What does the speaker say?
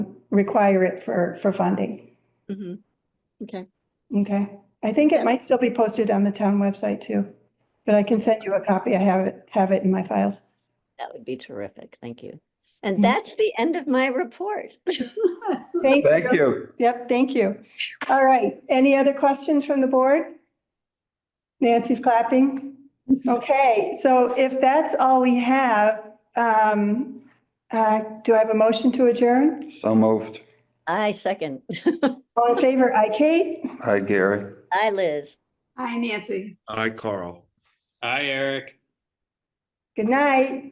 require it for, for funding, hmm Okay, okay? I think it Yeah. might still be posted on the town website too, but I can send you a copy. I have it, have it in my files. that would be terrific. Thank you. And that's the end of my report. Thank you. Thank you. Yep, thank you. All right, any other questions from the board? Nancy's clapping. Okay, so if that's all we have, um, uh, do I have a motion to adjourn? So moved. I second. All in favor, I, Kate? Hi, Gary. I, Liz. Hi, Nancy. Hi, Carl. Hi, Eric. Good night.